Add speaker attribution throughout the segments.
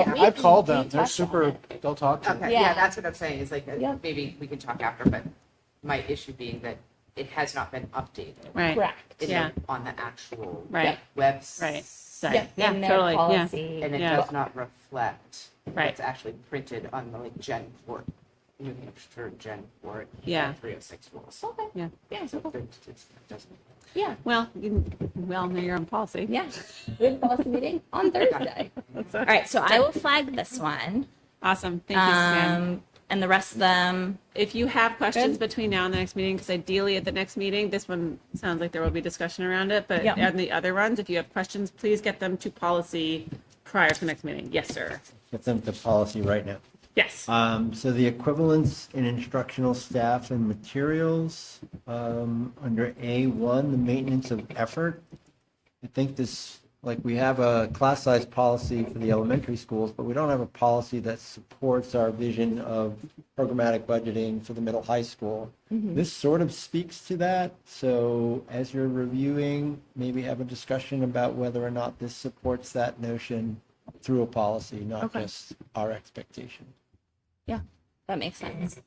Speaker 1: Yeah.
Speaker 2: I've called them.
Speaker 1: We
Speaker 2: They're
Speaker 1: touched on
Speaker 2: super,
Speaker 1: it.
Speaker 2: they'll talk to you.
Speaker 3: Okay, yeah,
Speaker 1: Yeah.
Speaker 3: that's what I'm saying, is like, uh,
Speaker 1: Yeah.
Speaker 3: maybe we can talk after, but my issue being that it has not been updated
Speaker 4: Right.
Speaker 1: Correct.
Speaker 3: in
Speaker 4: Yeah.
Speaker 3: the, on the actual
Speaker 4: Right.
Speaker 3: website.
Speaker 4: Right.
Speaker 1: Yep,
Speaker 4: Yeah,
Speaker 1: in their
Speaker 4: totally, yeah.
Speaker 1: policy.
Speaker 3: And it
Speaker 4: Yeah.
Speaker 3: does not reflect
Speaker 4: Right.
Speaker 3: what's actually printed on the like Gen Court, New Hampshire Gen Court.
Speaker 4: Yeah.
Speaker 3: Three oh six rules.
Speaker 1: Okay.
Speaker 4: Yeah.
Speaker 1: Yeah.
Speaker 3: So
Speaker 1: so-
Speaker 3: it's- it's- it doesn't-
Speaker 1: Yeah.
Speaker 4: Well, you, well, know your own policy.
Speaker 1: Yeah. We have a policy meeting on Thursday.
Speaker 4: That's
Speaker 5: All
Speaker 4: a-
Speaker 5: right, so I will flag this one.
Speaker 4: Awesome. Thank you, Sam.
Speaker 5: Um, and the rest of them,
Speaker 4: If you have questions between now and the next meeting, because ideally at the next meeting, this one sounds like there will be discussion around it, but
Speaker 5: Yep.
Speaker 4: on the other ones, if you have questions, please get them to policy prior to the next meeting. Yes, sir.
Speaker 6: get them to policy right now.
Speaker 4: Yes.
Speaker 6: Um, so the equivalence in instructional staff and materials, um, under A one, the maintenance of effort. I think this, like, we have a class size policy for the elementary schools, but we don't have a policy that supports our vision of programmatic budgeting for the middle high school. This sort of speaks to that, so as you're reviewing, maybe have a discussion about whether or not this supports that notion through a policy, not just our expectation.
Speaker 5: that makes sense.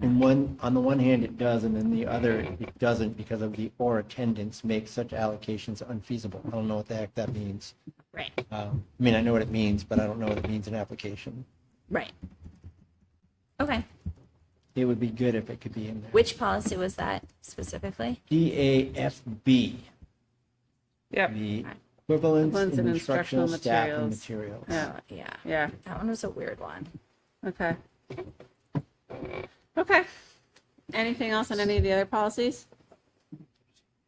Speaker 6: And one, on the one hand, it does, and then the other, it doesn't because of the or attendance makes such allocations unfeasible. I don't know what the heck that means.
Speaker 5: Right,
Speaker 6: Um, I mean, I know what it means, but I don't know what it means in application.
Speaker 5: right. Okay,
Speaker 6: It would be good if it could be in there.
Speaker 5: which policy was that specifically?
Speaker 6: DAFB,
Speaker 4: Yep.
Speaker 6: the equivalence
Speaker 4: Equivalence
Speaker 6: in
Speaker 4: in
Speaker 6: instructional
Speaker 4: instructional
Speaker 6: staff and
Speaker 4: materials.
Speaker 6: materials.
Speaker 4: Yeah.
Speaker 5: Yeah,
Speaker 4: Oh, Yeah.
Speaker 5: that one was a weird one.
Speaker 4: Okay. Okay. Anything else on any of the other policies?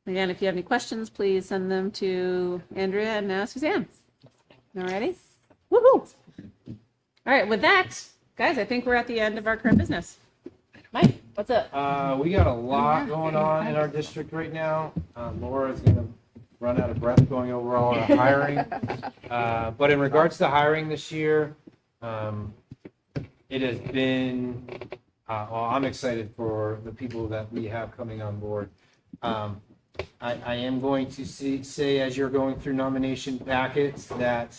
Speaker 4: Again, if you have any questions, please send them to Andrea and now Suzanne. Alrighty? Woo-hoo! All right, with that, guys, I think we're at the end of our current business.
Speaker 1: Mike, what's up?
Speaker 2: Uh, we got a lot going on in our district right now. Uh, Laura's gonna run out of breath going over all our hiring. Uh, but in regards to hiring this year, um, it has been, uh, well, I'm excited for the people that we have coming on board. Um, I, I am going to see, say, as you're going through nomination packets, that,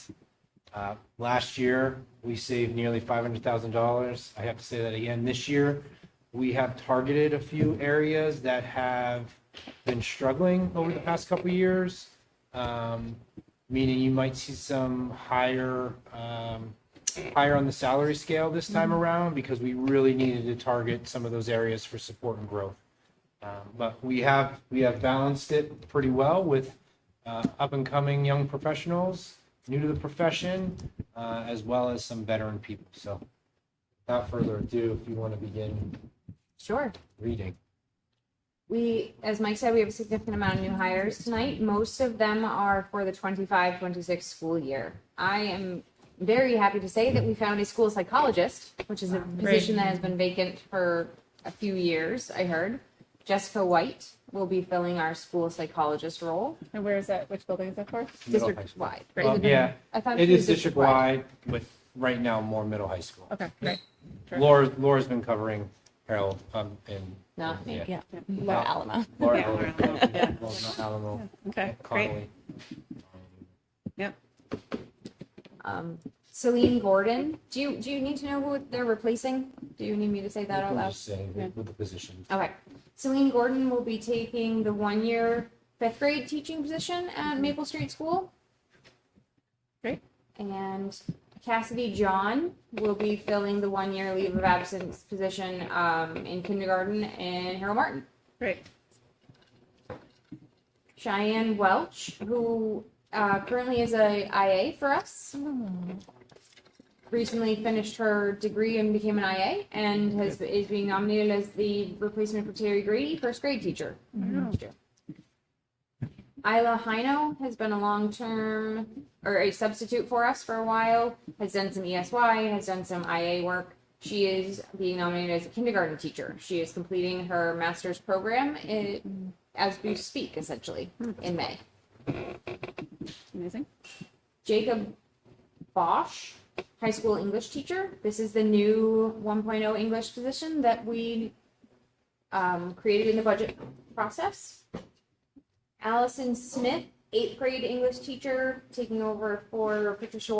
Speaker 2: uh, last year, we saved nearly five hundred thousand dollars. I have to say that again this year. We have targeted a few areas that have been struggling over the past couple of years. Um, meaning you might see some higher, um, higher on the salary scale this time around because we really needed to target some of those areas for support and growth. Um, But we have, we have balanced it pretty well with uh, up-and-coming young professionals, new to the profession, uh, as well as some veteran people. So without further ado, if you want to begin
Speaker 7: Sure.
Speaker 2: reading.
Speaker 7: We, as Mike said, we have a significant amount of new hires tonight. Most of them are for the 25-26 school year. I am very happy to say that we found a school psychologist, which is a position that has been vacant for a few years, I heard. Jessica White will be filling our school psychologist role
Speaker 4: And where is that? Which building is that for?
Speaker 2: Middle high school.
Speaker 7: district-wide.
Speaker 2: Well,
Speaker 4: Um,
Speaker 7: Is it-
Speaker 2: Um, yeah,
Speaker 7: I thought
Speaker 2: It
Speaker 7: was
Speaker 2: is district-wide with, right now, more middle high school.
Speaker 4: Okay, great. Sure.
Speaker 2: Laura, Laura's been covering Harold um, and.
Speaker 7: Not me.
Speaker 2: yeah,
Speaker 5: Laura Alamo.
Speaker 2: Laura,
Speaker 4: Yeah, Laura, yeah.
Speaker 2: Laura, Laura, Alamo, Um,
Speaker 4: Okay, great.
Speaker 2: Connolly.
Speaker 4: Yep.
Speaker 7: Um, Celine Gordon, do you, do you need to know who they're replacing? Do you need me to say that out
Speaker 2: I'm
Speaker 7: loud?
Speaker 2: just saying
Speaker 4: Yeah.
Speaker 2: with the position.
Speaker 7: Okay. Celine Gordon will be taking the one-year fifth grade teaching position at Maple Street School.
Speaker 4: Mm-hmm. Great.
Speaker 7: And Cassidy John will be filling the one-year leave of absence position um, in kindergarten in Harold Martin.
Speaker 4: Great.
Speaker 7: Cheyenne Welch, who uh, currently is a IA for us. Recently finished her degree and became an IA, and has is being nominated as the replacement for Terry Grady, first grade teacher. next year. Isla Hino has been a long term or a substitute for us for a while. Has done some ESY, has done some IA work. She is being nominated as a kindergarten teacher. She is completing her master's program in, as we speak, essentially, in May.
Speaker 4: Amazing.
Speaker 7: Jacob Bosch, high school English teacher. This is the new 1.0 English position that we um, created in the budget process. Allison Smith, eighth grade English teacher, taking over for Patricia